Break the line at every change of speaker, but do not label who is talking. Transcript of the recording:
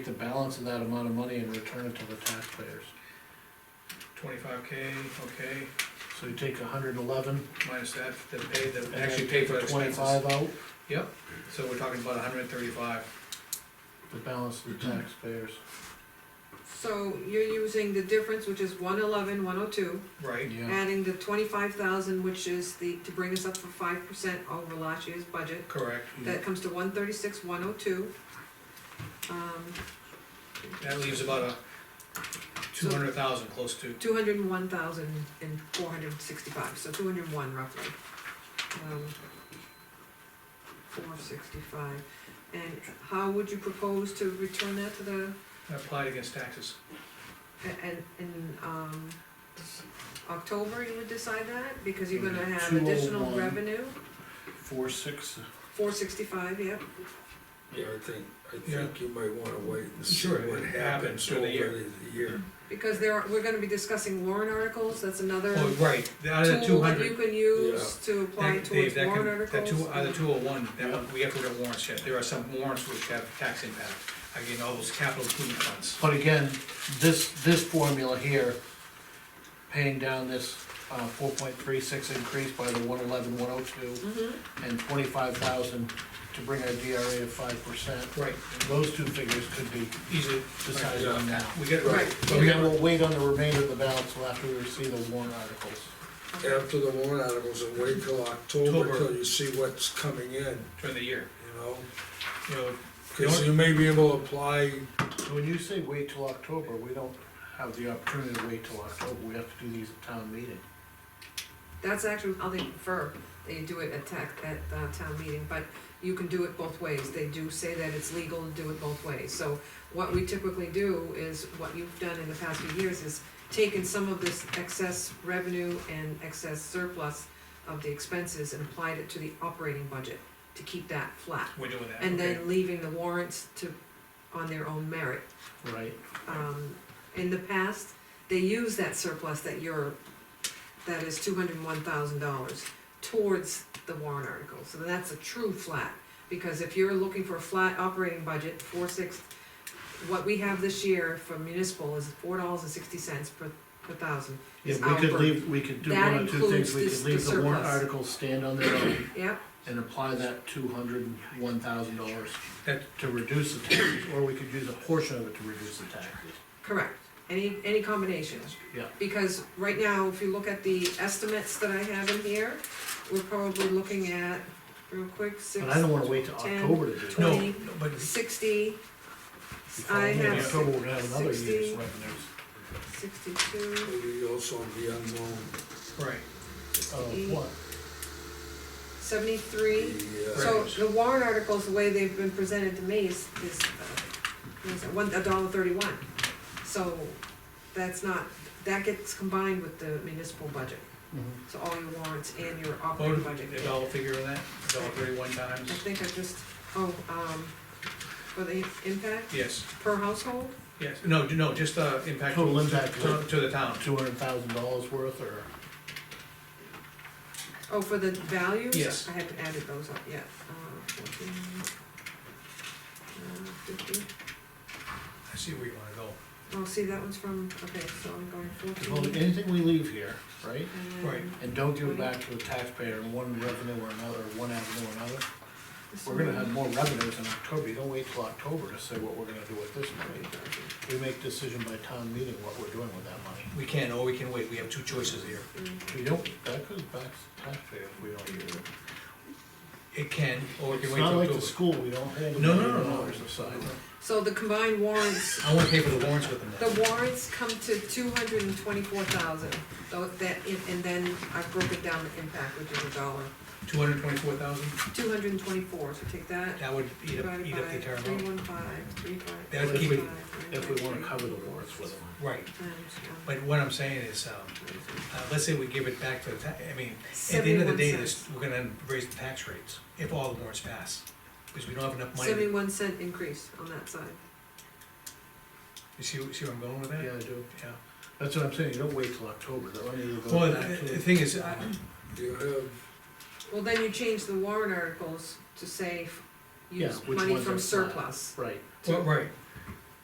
take the balance of that amount of money and return it to the taxpayers.
Twenty-five K, okay,
So you take hundred and eleven,
minus that, the pay, the
and
actually
actually
pay
take
for
the
expenses.
twenty-five out,
Yep, so we're talking about hundred and thirty-five.
the balance to the taxpayers.
So you're using the difference, which is one eleven, one oh two,
Right,
Yeah,
adding the twenty-five thousand, which is the, to bring us up for five percent over last year's budget.
correct,
That comes to one thirty-six, one oh two. Um,
that leaves about a two hundred thousand, close to,
Two hundred and one thousand and four hundred and sixty-five, so two hundred and one roughly. Um, Four sixty-five, and how would you propose to return that to the,
applied against taxes.
a- and, in, um, October you would decide that, because
Mm-hmm.
you're gonna have
201.
additional revenue?
four, six,
Four sixty-five, yep,
Yeah, I think, I
Yeah.
think you might wanna wait and see
Sure,
what
it happens
happens
through
over
the year.
the year.
because there are, we're gonna be discussing warrant articles, that's another
Oh, right, out of the two
tool that Uh, you
hundred.
can use to apply towards warrant
That
articles.
two, out of the two oh one, that
Yeah.
one, we have to look at warrants yet, there are some warrants which have tax impact, again, all those capital improvement funds.
but again, this, this formula here, paying down this, uh, four point three six increase by the one eleven, one oh two,
Mhm.
and twenty-five thousand to bring our DRA to five percent.
Right,
Those two figures could be
easily,
decided on now.
we get, right,
Right.
but
But we
we got,
will wait on the remainder of the balance till after we receive the warrant articles.
After the warrant articles, and wait till October
October.
till you see what's coming in,
during the year,
you know?
you know,
Cause you may be able to apply,
So When you say wait till October, we don't have the opportunity to wait till October, we have to do these at town meeting.
That's actually how they prefer, they do it at tac, at, uh, town meeting, but you can do it both ways, they do say that it's legal to do it both ways. So what we typically do is, what you've done in the past few years is taken some of this excess revenue and excess surplus of the expenses and applied it to the operating budget to keep that flat.
we're doing that,
And
okay,
then leaving the warrants to, on their own merit.
Right.
Um, in the past, they use that surplus that you're, that is two hundred and one thousand dollars towards the warrant article, so that's a true flat. Because if you're looking for a flat operating budget, four six, what we have this year for municipal is four dollars and sixty cents per, per thousand.
Yeah,
It's
we could
our
leave, we could do
That
one of two things,
includes
we
this-
could leave
the
the warrant
surplus.
articles stand on their own
Yep,
and apply that two hundred and one thousand dollars
That-
to reduce the taxes, or we could use a portion of it to reduce the taxes.
correct, any, any combination.
Yeah,
Because right now, if you look at the estimates that I have in here, we're probably looking at, real quick, six.
but I don't wanna wait till
Ten,
October to do that.
no,
Twenty.
no, but
sixty.
Before
I
In
have
October, we're gonna have another year's
sixty,
revenues.
sixty-two,
maybe also the unknown,
Right,
Of what?
seventy-three.
the, uh,
So the warrant articles, the way they've been presented to me is, is, uh, what is it, one, a dollar thirty-one. So that's not, that gets combined with the municipal budget,
Mhm.
so all your warrants and your operating
voted,
budget.
the dollar figure on that, dollar thirty-one times,
I think I just, oh, um, for the impact
yes,
per household,
yes, no, no, just, uh, impact.
Total impact.
To, to the town,
Two hundred thousand dollars worth, or?
oh, for the values?
Yes.
I haven't added those up yet, uh, fourteen, uh, fifty.
I see where you wanna go,
Oh, see, that one's from, okay, so I'm going
Well,
fourteen.
anything we leave here, right,
and
Right.
and don't give it back to the taxpayer in one revenue or another, one avenue or another,
this
we're gonna
one.
have more revenues in October, you don't wait till October to say what we're gonna do with this money. We make decision by town meeting what we're doing with that money.
we can, or we can wait, we have two choices here,
We don't, that goes back to taxpayer if we don't use it.
it can, or we can
It's
wait till
not like
October.
the school, we don't handle
No, no,
million
no, no.
dollars aside.
So the combined warrants,
I wanna pay for the warrants with them
the
then,
warrants come to two hundred and twenty-four thousand, though that, and and then I've broken down the impact, which is a dollar.
two hundred twenty-four thousand,
Two hundred and twenty-four, so take that,
that would eat up,
divided
eat
by
up the entire
three
amount,
one five, three five.
That would
three
keep it-
five,
If
nine
we wanna
nine
cover the
three.
warrants with them.
right,
Times one.
but what I'm saying is, um, uh, let's say we give it back to the, ta- I mean, At the end of the day,
71
this,
cents.
we're gonna raise the tax rates, if all the warrants pass, because we don't have enough money,
Seventy-one cent increase on that side.
you see, see where I'm going with that?
Yeah, I do,
Yeah.
that's what I'm saying, you don't wait till October, that money will go
Well,
back
the, the
to.
thing is, uh, I,
you have,
Well, then you change the warrant articles to say, f-
Yeah,
use
which
money
ones
from
are flat.
surplus.
Right,
well, right,